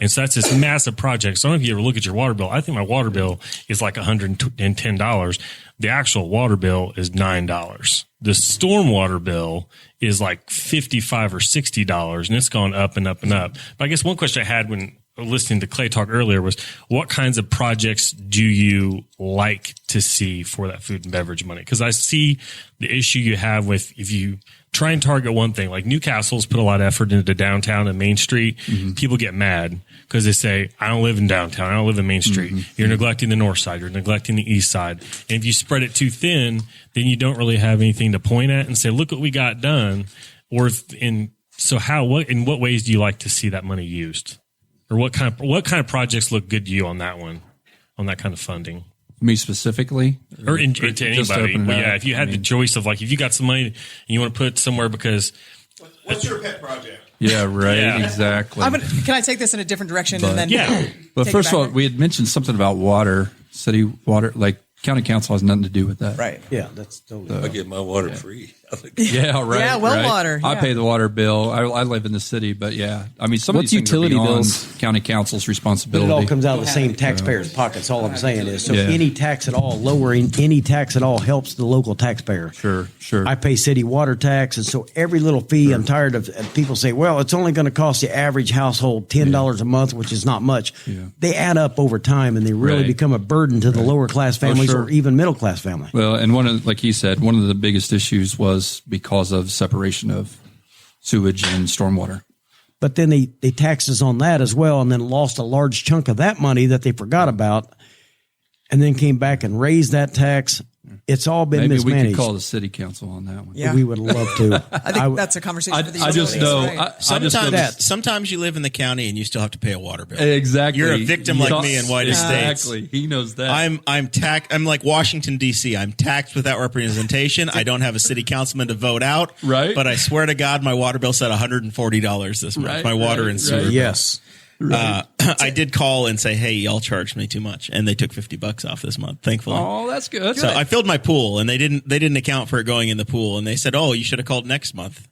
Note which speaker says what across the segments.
Speaker 1: And so that's this massive project. Some of you ever look at your water bill. I think my water bill is like $110. The actual water bill is $9. The stormwater bill is like 55 or $60 and it's gone up and up and up. But I guess one question I had when listening to Clay talk earlier was what kinds of projects do you like to see for that food and beverage money? Cause I see the issue you have with if you try and target one thing, like Newcastle's put a lot of effort into downtown and Main Street.
Speaker 2: Mm-hmm.
Speaker 1: People get mad because they say, I don't live in downtown. I don't live in Main Street.
Speaker 2: Mm-hmm.
Speaker 1: You're neglecting the north side. You're neglecting the east side. And if you spread it too thin, then you don't really have anything to point at and say, look what we got done. Or if, in, so how, what, in what ways do you like to see that money used? or what kind of what kind of projects look good to you on that one, on that kind of funding,
Speaker 2: Me specifically,
Speaker 1: or, in,
Speaker 2: Or
Speaker 1: to
Speaker 2: just
Speaker 1: anybody?
Speaker 2: open it
Speaker 1: Well,
Speaker 2: up.
Speaker 1: yeah, if you had the choice of like, if you got some money and you want to put it somewhere because
Speaker 3: What's your pet project?
Speaker 2: Yeah, right.
Speaker 1: Yeah.
Speaker 2: Exactly.
Speaker 4: I'm gonna, can I take this in a different direction and then?
Speaker 1: yeah,
Speaker 2: but
Speaker 4: take it
Speaker 2: first of all,
Speaker 4: back.
Speaker 2: we had mentioned something about water, city water, like county council has nothing to do with that.
Speaker 4: Right.
Speaker 5: Yeah, that's totally.
Speaker 2: Uh,
Speaker 6: I get my water free.
Speaker 2: Yeah, right.
Speaker 4: Yeah, well
Speaker 2: right.
Speaker 4: water,
Speaker 2: I
Speaker 4: yeah.
Speaker 2: pay the water bill. I, I live in the city, but yeah, I mean, some
Speaker 7: What's
Speaker 2: of these things are
Speaker 7: utility
Speaker 2: beyond
Speaker 7: bills?
Speaker 2: county council's
Speaker 5: But
Speaker 2: responsibility.
Speaker 5: it all comes out of the same taxpayer's pockets. All I'm saying is, so
Speaker 2: Yeah.
Speaker 5: any tax at all, lowering any tax at all helps the local taxpayer.
Speaker 2: Sure, sure.
Speaker 5: I pay city water tax, and so every little fee. I'm tired of of people say, "Well, it's only going to cost the average household ten dollars a month, which is not much." They add up over time, and they really
Speaker 2: Right.
Speaker 5: become a burden to the lower class families
Speaker 2: sure.
Speaker 5: or even middle class family.
Speaker 2: Well, and one of like he said, one of the biggest issues was because of separation of sewage and stormwater.
Speaker 5: but then they they taxes on that as well and then lost a large chunk of that money that they forgot about and then came back and raised that tax it's all been
Speaker 2: Maybe we
Speaker 5: mismanaged
Speaker 2: could call the city council on that one.
Speaker 4: Yeah.
Speaker 5: we would love to
Speaker 4: I think
Speaker 5: w-
Speaker 4: that's a conversation
Speaker 2: I,
Speaker 4: for the
Speaker 2: I just
Speaker 4: utilities,
Speaker 2: know.
Speaker 4: right?
Speaker 2: I, I
Speaker 6: Sometimes,
Speaker 2: just know
Speaker 5: that-
Speaker 3: Sometimes you live in the county and you still have to pay a water bill.
Speaker 2: exactly.
Speaker 6: You're a victim like me in white estates.
Speaker 2: Exactly. He knows that.
Speaker 3: I'm I'm tax I'm like Washington D.C. I'm taxed without representation. I don't have a city councilman to vote out.
Speaker 2: Right.
Speaker 3: But I swear to God, my water bill said 140 dollars this month.
Speaker 2: Right,
Speaker 3: my water
Speaker 2: right,
Speaker 3: and sewer.
Speaker 2: right.
Speaker 5: yes
Speaker 3: Uh, I did call and say, hey, y'all charged me too much, and they took 50 bucks off this month. Thankfully.
Speaker 2: Oh, that's good.
Speaker 3: So I filled my pool, and they didn't they didn't account for it going in the pool, and they said, "Oh, you should have called next month,"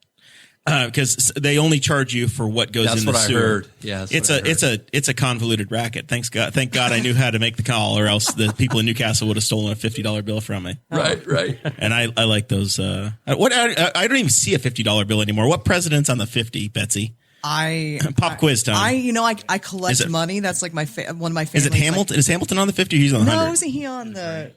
Speaker 3: because they only charge you for what goes
Speaker 2: That's
Speaker 3: in the
Speaker 2: what I
Speaker 3: sewer.
Speaker 2: heard. Yeah, that's
Speaker 3: it's
Speaker 2: what I
Speaker 3: a
Speaker 2: heard.
Speaker 3: it's a it's a convoluted racket. Thanks God, thank God I knew how to make the call, or else the people in Newcastle would have stolen a fifty dollar bill from me.
Speaker 2: right, right.
Speaker 3: And I, I like those. Uh, what I, I don't even see a fifty dollar bill anymore. What president's on the fifty, Betsy?
Speaker 4: I
Speaker 3: Pop quiz time.
Speaker 4: I you know I I
Speaker 3: Is
Speaker 4: collect
Speaker 3: it-
Speaker 4: money. That's like my fa- one of my
Speaker 3: is
Speaker 4: favorites.
Speaker 3: it Hamilton? is Hamilton on the fifty? Or he's on the
Speaker 4: Like, no,
Speaker 3: hundred.
Speaker 4: isn't he on the?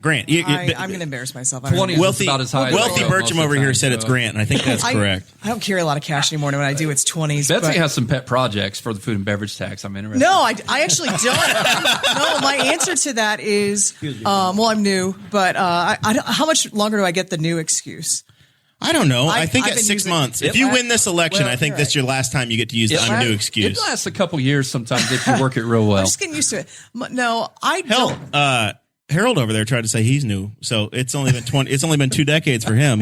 Speaker 3: Grant. you- you-
Speaker 4: I,
Speaker 3: but-
Speaker 4: I'm going to embarrass myself. I don't,
Speaker 2: Twenty
Speaker 4: know.
Speaker 2: is
Speaker 3: wealthy
Speaker 2: about as high. as
Speaker 3: wealthy
Speaker 2: I go most
Speaker 3: Bertram
Speaker 2: of the
Speaker 3: over here
Speaker 2: time,
Speaker 3: said it's
Speaker 2: so-
Speaker 3: Grant, and I think that's
Speaker 4: I,
Speaker 3: correct.
Speaker 4: I don't carry a lot of cash anymore. And When I do, it's twenties.
Speaker 2: Betsy
Speaker 4: but-
Speaker 2: has some pet projects for the food and beverage tax. I'm interested.
Speaker 4: No, I, I actually don't. no, my answer to that is, um, well, I'm new, but uh, I, I don't, how much longer do I get the new excuse?
Speaker 3: I don't know. I,
Speaker 4: I-
Speaker 3: think
Speaker 4: I've
Speaker 3: at
Speaker 4: been
Speaker 3: six
Speaker 4: using-
Speaker 3: months. If
Speaker 4: Yeah.
Speaker 3: you win this election,
Speaker 4: Well,
Speaker 3: I think
Speaker 4: you're
Speaker 3: that's
Speaker 4: right.
Speaker 3: your last time you get to use the I'm new
Speaker 4: right.
Speaker 2: It
Speaker 3: excuse.
Speaker 2: lasts a couple years sometimes if you work it real well.
Speaker 4: I'm just getting used to it. M- No, I
Speaker 3: Hell,
Speaker 4: don't.
Speaker 3: uh, Harold over there tried to say he's new, so it's only been twenty. it's only been two decades for him.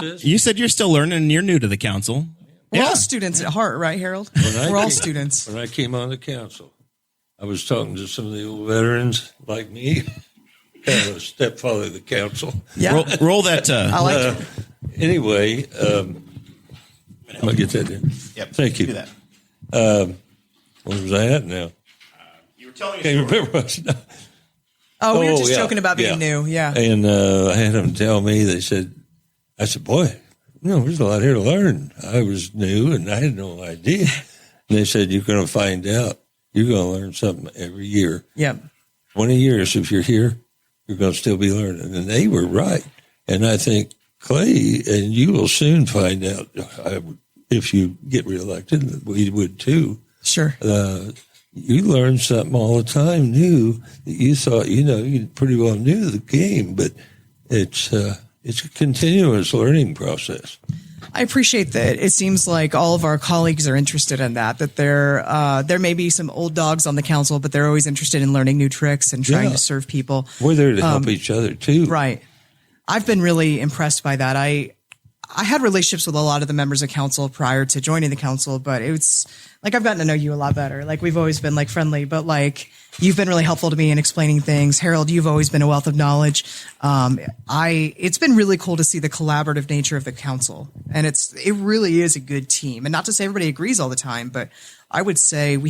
Speaker 3: You said you're still learning and you're new to the council.
Speaker 4: We're
Speaker 3: Yeah.
Speaker 4: all students at heart, right, Harold?
Speaker 6: I
Speaker 4: We're all
Speaker 6: came-
Speaker 4: students.
Speaker 6: When I came on the council, I was talking to some of the old veterans like me, kind of a stepfather of the council.
Speaker 4: Yeah,
Speaker 3: Roll, roll that. Uh,
Speaker 4: I like. it.
Speaker 6: Anyway, um, I'm gonna get that in. Yep. Thank you. Um, where was I at now?
Speaker 3: you were telling
Speaker 6: Can't remember. what I was-
Speaker 4: Oh, we were just
Speaker 6: yeah,
Speaker 4: joking about being new. Yeah.
Speaker 6: And uh, I had them tell me, they said, I said, boy, you know, there's a lot here to learn. I was new and I had no idea. And they said, you're going to find out. You're going to learn something every year.
Speaker 4: Yeah.
Speaker 6: 20 years, if you're here, you're going to still be learning. And they were right. And I think, Clay, and you will soon find out I would- if you get reelected, and we would too.
Speaker 4: Sure.
Speaker 6: You learn something all the time new that you thought, you know, you pretty well knew the game, but it's, uh, it's a continuous learning process.
Speaker 4: I appreciate that. It seems like all of our colleagues are interested in that. That there, uh, there may be some old dogs on the council, but they're always interested in learning new tricks and trying
Speaker 6: Yeah.
Speaker 4: to serve people.
Speaker 6: We're there to help each other too.
Speaker 4: Right. I've been really impressed by that. I I had relationships with a lot of the members of council prior to joining the council, but it's like I've gotten to know you a lot better. Like we've always been like friendly, but like you've been really helpful to me in explaining things. Harold, you've always been a wealth of knowledge. Um, I it's been really cool to see the collaborative nature of the council, and it's it really is a good team. And not to say everybody agrees all the time, but I would say we